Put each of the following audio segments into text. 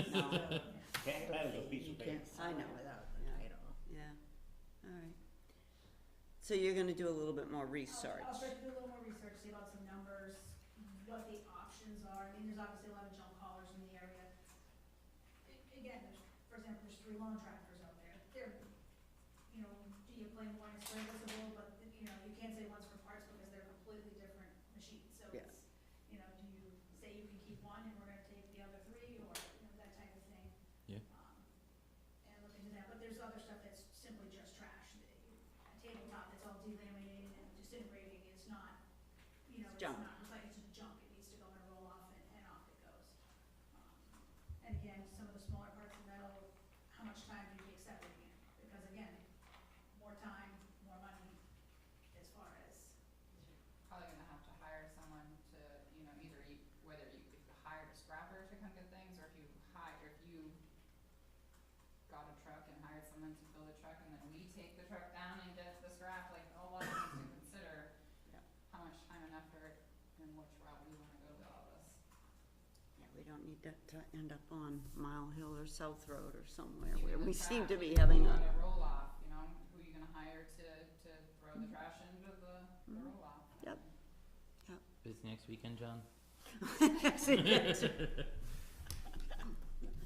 No, Can't plan with a piece you of paper. can't sign it without the Yeah. title. Yeah, all right. So you're gonna do a little bit more research. I'll start to do a little more research, see about some numbers, what the options are, I mean, there's obviously a lot of junk haulers in the area. A- Again, there's, for example, there's three lawn tractors out there, they're, you know, do you claim one is serviceable, but, you know, you can't say one's for parts because they're completely different machines, so Yeah. it's, you know, do you say you can keep one and we're gonna take the other three, or, you know, that type of thing. Yeah. Um, And look into that, but there's other stuff that's simply just trash, that you a tabletop that's all delaminated and disintegrating, it's not, you know, It's it's junk. not recycled to junk, it needs to go in a roll off and, and off it goes. Um, And again, some of the smaller parts of metal, how much time do you take separating it? Because again, more time, more money as far as, probably gonna have to hire someone to, you know, either you, whether you, if you hired a scrapper to come get things, or if you hire, if you got a truck and hired someone to fill the truck, and then we take the truck down and get the scrap, like, a lot of things to consider. Yeah. How much time and effort and which route we wanna go with all this. Yeah, we don't need that to end up on Mile Hill or South Road or somewhere Even where the we seem trash, to be if you having want a, roll off, you know, who you gonna hire to, to throw the trash into the, the Mhm. roll off? Mm-hmm. Yep. Is next weekend, John?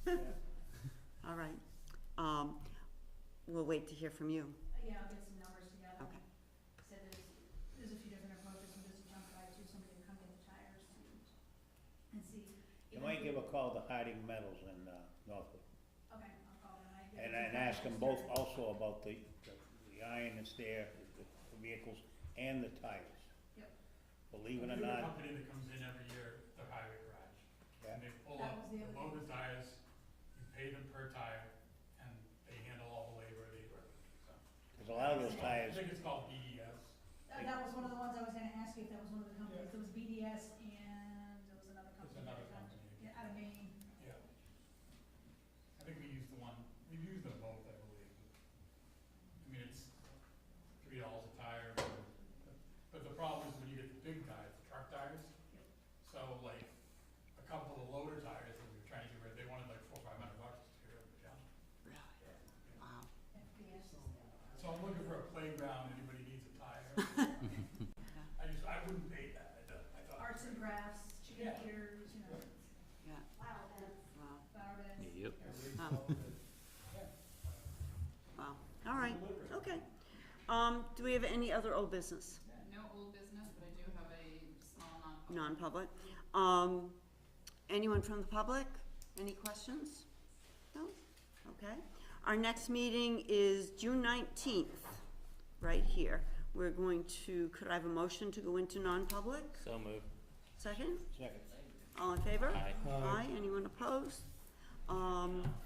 all right. Um, we'll wait to hear from you. yeah, I'll get some numbers together. Okay. So there's, there's a few different approaches, and there's a junk guy too, somebody to come get the tires and, and see. You even might if give a call to Harding Metals in, uh, Northwood, Okay, I'll call them, I. and, and ask them both Oh, also about the, the iron that's there, the the vehicles and the tires. Yep. Believe it or We have a not, company that comes in every year, the highway garage, Yeah. and they pull That up was the a other load of tires, you pay them per tire, and they handle all the labor, they work, so. there's a lot of those I tires, think it's called E BES, That, that was one of the ones I was gonna ask you, if that was one of the companies, Yeah. it was BDS and there was another company. it's another that- company, Yeah, out of Maine, yeah. I think we used the one, we've used them both, I believe. I mean, it's three dollars a tire, but- but the problem is when you get the big tires, the truck tires, Yep. so like, a couple of loader tires that we were trying to get rid of, they wanted like four, five hundred bucks to get rid of the junk. Really? Wow. FBS is the other. So I'm looking for a playground, anybody needs a tire. I just, I wouldn't pay that, I don't, I thought. Arts and crafts, chicken Yeah. eaters, you know, Yeah, flower beds, wow, flower beds. Yep. Wow. wow. All right, okay. Um, do we have any other old business? No old business, but I do have a small non-public. non-public. Um, anyone from the public? Any questions? No? Okay. Our next meeting is June nineteenth, right here. We're going to, could I have a motion to go into non-public? So moved. Second? second. All in favor? Aye. Aye. Anyone opposed? Um,